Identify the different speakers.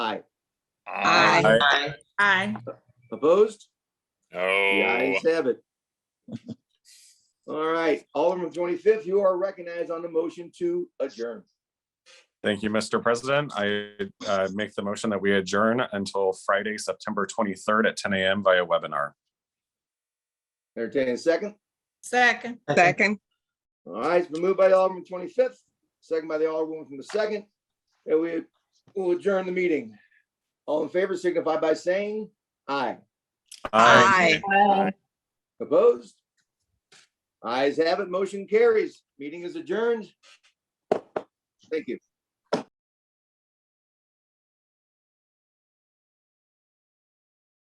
Speaker 1: Aye.
Speaker 2: Aye.
Speaker 3: Aye.
Speaker 2: Opposed? The
Speaker 1: No.
Speaker 2: ayes have it. All right, Alderman from twenty-fifth, you are recognized on the motion to adjourn.
Speaker 4: Thank you, Mr. President. I uh, make the motion that we adjourn until Friday, September 23rd at 10 a.m. via webinar.
Speaker 2: Entertaining second.
Speaker 3: Second.
Speaker 1: Second.
Speaker 2: All right, it's been moved by the Alderman twenty-fifth, second by the Alderwoman from the second. And we will adjourn the meeting. All in favor signify by saying aye.
Speaker 1: Aye.
Speaker 2: Opposed? Ayes have it, motion carries. Meeting is adjourned. Thank you.